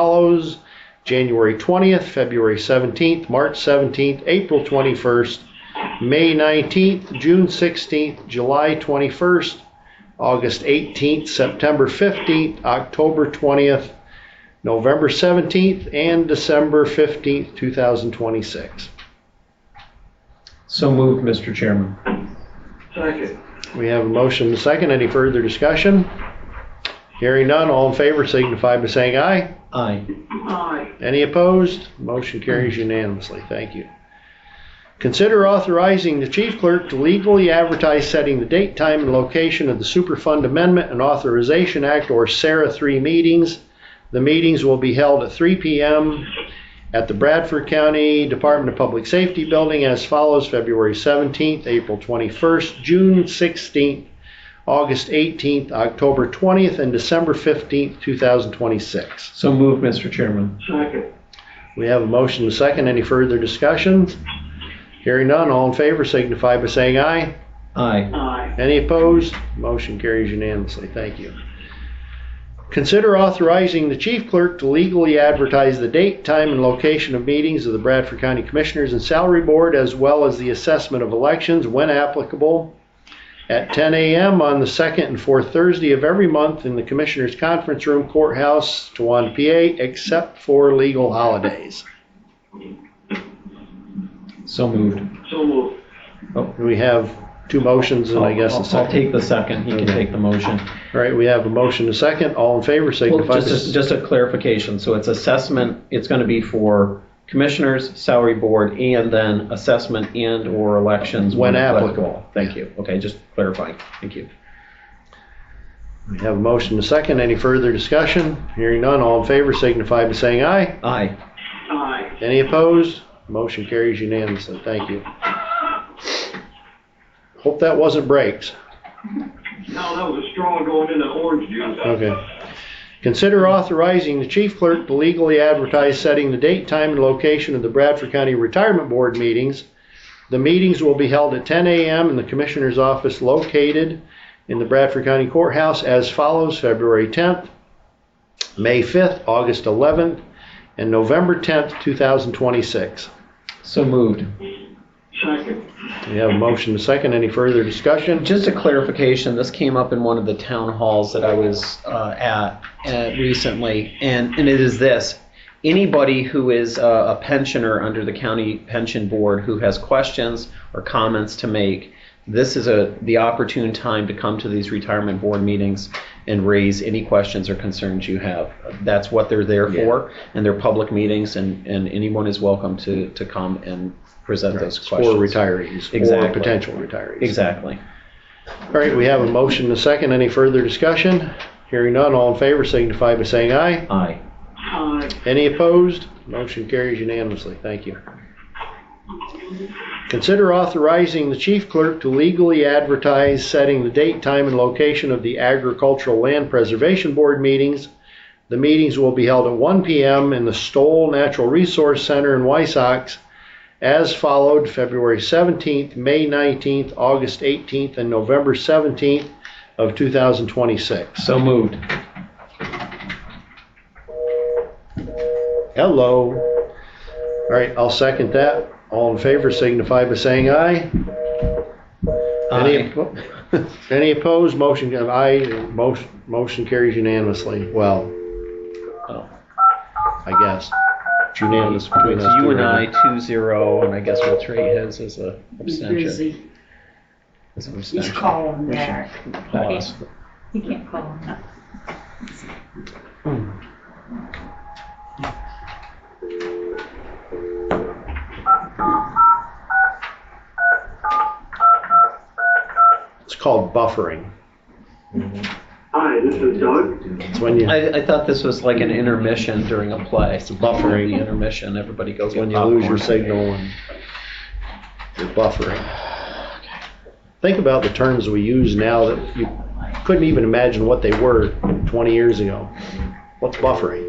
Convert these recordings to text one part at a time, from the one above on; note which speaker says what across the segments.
Speaker 1: follows January 20th, February 17th, March 17th, April 21st, May 19th, June 16th, July 21st, August 18th, September 15th, October 20th, November 17th, and December 15th, 2026.
Speaker 2: So moved, Mr. Chairman.
Speaker 3: Second.
Speaker 1: We have a motion and a second. Any further discussion? Hearing none, all in favor signify by saying aye.
Speaker 2: Aye.
Speaker 3: Aye.
Speaker 1: Any opposed? Motion carries unanimously. Thank you. Consider authorizing the chief clerk to legally advertise setting the date, time, and location of the Superfund Amendment and Authorization Act, or SARA 3 meetings. The meetings will be held at 3 PM at the Bradford County Department of Public Safety Building as follows, February 17th, April 21st, June 16th, August 18th, October 20th, and December 15th, 2026.
Speaker 2: So moved, Mr. Chairman.
Speaker 3: Second.
Speaker 1: We have a motion and a second. Any further discussions? Hearing none, all in favor signify by saying aye.
Speaker 2: Aye.
Speaker 3: Aye.
Speaker 1: Any opposed? Motion carries unanimously. Thank you. Consider authorizing the chief clerk to legally advertise the date, time, and location of meetings of the Bradford County Commissioners and Salary Board, as well as the assessment of elections when applicable, at 10 a.m. on the second and fourth Thursday of every month in the Commissioners Conference Room Courthouse, Tewan, PA, except for legal holidays.
Speaker 2: So moved.
Speaker 3: So moved.
Speaker 1: We have two motions and I guess
Speaker 2: I'll-
Speaker 1: a
Speaker 2: I'll- I'll
Speaker 1: second.
Speaker 2: take the second. He can
Speaker 1: Okay.
Speaker 2: take the motion.
Speaker 1: All right, we have a motion and a second. All in favor
Speaker 2: Well,
Speaker 1: signify.
Speaker 2: just, a-
Speaker 1: by-
Speaker 2: just a clarification. So it's assessment, it's going to be for commissioners, salary board, and then assessment and/or elections.
Speaker 1: When applicable.
Speaker 2: Thank you. Okay, just clarifying. Thank you.
Speaker 1: We have a motion and a second. Any further discussion? Hearing none, all in favor signify by saying aye.
Speaker 2: Aye.
Speaker 3: Aye.
Speaker 1: Any opposed? Motion carries unanimously. Thank you. Hope that wasn't breaks.
Speaker 3: Now that was a straw going into orange juice.
Speaker 1: Okay. Consider authorizing the chief clerk to legally advertise setting the date, time, and location of the Bradford County Retirement Board meetings. The meetings will be held at 10 a.m. in the Commissioner's office located in the Bradford County Courthouse as follows, February 10th, May 5th, August 11th, and November 10th, 2026.
Speaker 2: So moved.
Speaker 3: Second.
Speaker 1: We have a motion to second. Any further discussion?
Speaker 2: Just a clarification, this came up in one of the town halls that I was uh, at uh, recently, and, and it is this. Anybody who is uh, a pensioner under the county pension board who has questions or comments to make, this is a, the opportune time to come to these retirement board meetings and raise any questions or concerns you have. That's what they're there for, and they're public meetings, and, and anyone is welcome to, to come and present those
Speaker 1: It's For
Speaker 2: questions.
Speaker 1: retirees, or
Speaker 2: Exactly.
Speaker 1: potential retirees.
Speaker 2: Exactly.
Speaker 1: All right, we have a motion and a second. Any further discussion? Hearing none, all in favor signify by saying aye.
Speaker 2: Aye.
Speaker 3: Aye.
Speaker 1: Any opposed? Motion carries unanimously. Thank you. Consider authorizing the chief clerk to legally advertise setting the date, time, and location of the Agricultural Land Preservation Board meetings. The meetings will be held at 1 PM in the Stoll Natural Resource Center in Wysox as followed, February 17th, May 19th, August 18th, and November 17th of 2026.
Speaker 2: So moved.
Speaker 1: Hello. All right, I'll second that. All in favor signify by saying aye. Any
Speaker 2: Aye.
Speaker 1: oppo- Any opposed, motion, uh, aye, motion motion carries unanimously. Well,
Speaker 2: Oh.
Speaker 1: I guess. It's unanimous between
Speaker 2: It's
Speaker 1: us two
Speaker 2: you and I,
Speaker 1: right
Speaker 2: two zero, and I guess we'll treat his as a abstention.
Speaker 4: Busy.
Speaker 2: As an
Speaker 4: Just
Speaker 2: abstention.
Speaker 4: call him back.
Speaker 2: Call us.
Speaker 4: You can't call him up.
Speaker 1: now. It's called buffering.
Speaker 3: Hi, this is Doug.
Speaker 1: It's when you,
Speaker 2: I, I thought this was like an intermission during a play. It's
Speaker 1: buffering.
Speaker 2: The intermission, everybody goes.
Speaker 1: it's when
Speaker 2: get
Speaker 1: you lose your
Speaker 2: popcorn.
Speaker 1: signal and you're buffering. Think about the terms we use now that you couldn't even imagine what they were 20 years ago. What's buffering?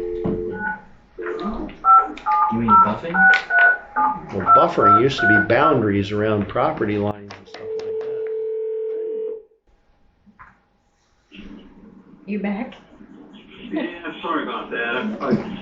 Speaker 5: You mean buffing?
Speaker 1: Well, buffering used to be boundaries around property lines and stuff like that.
Speaker 4: You back?
Speaker 3: Yeah, sorry about that. I- I